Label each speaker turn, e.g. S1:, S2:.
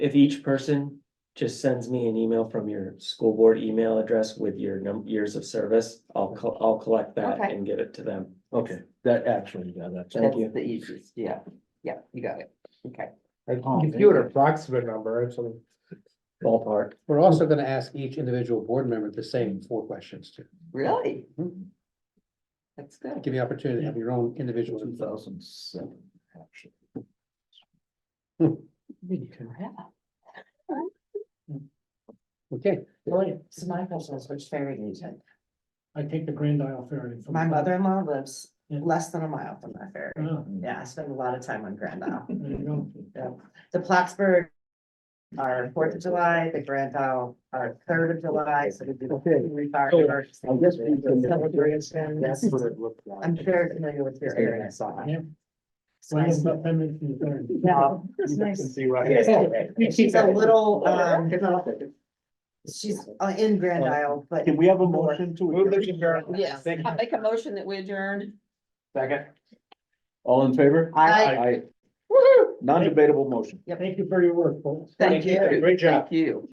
S1: if each person just sends me an email from your school board email address with your num- years of service, I'll co- I'll collect that
S2: Okay.
S1: and give it to them.
S3: Okay, that actually, yeah, that's.
S1: Thank
S2: That's
S1: you.
S2: the easiest, yeah, yeah, you got it, okay.
S4: I
S3: Oh,
S4: can give
S3: thank
S4: you an
S3: you.
S4: approximate number, so
S1: Ballpark.
S4: we're also gonna ask each individual board member the same four questions too.
S2: Really?
S3: Mm-hmm.
S4: Mhm.
S2: That's good.
S4: Give you opportunity to have your own individual.
S3: Two thousand seven, actually.
S4: Okay,
S2: So my husband's which ferry agent.
S5: I take the Grand Isle ferry.
S3: Oh,
S5: from-
S2: My mother-in-law lives
S5: Yeah.
S2: less than a mile from that ferry.
S5: Oh,
S2: Yeah, I spend a lot of time on Grand Isle.
S5: there you go.
S2: Yeah. The Plattsburgh are Fourth of July, the Grand Isle are Third of July, so we do.
S3: Okay.
S2: we fire
S3: So,
S2: diverse.
S3: Oh, I guess we can-
S2: Yes.
S3: what it looked like.
S2: I'm very familiar with your area, so.
S5: Yeah.
S2: It's
S5: Well, it's
S2: nice.
S5: about ten minutes from the ferry.
S2: Yeah, it's
S4: You
S2: nice.
S4: can see right
S2: It's-
S4: here.
S2: She's a little,
S3: Oh,
S2: um, she's uh, in Grand Isle, but
S3: Can we have a
S2: More.
S3: motion to?
S4: Move the adjourn.
S6: Yes, I make a motion that we adjourn.
S3: Second. All in favor?
S2: I,
S3: Aye.
S2: woo
S3: Non-debatable motion.
S4: Thank you for your work, folks.
S2: Thank you.
S4: Great job.
S2: thank you.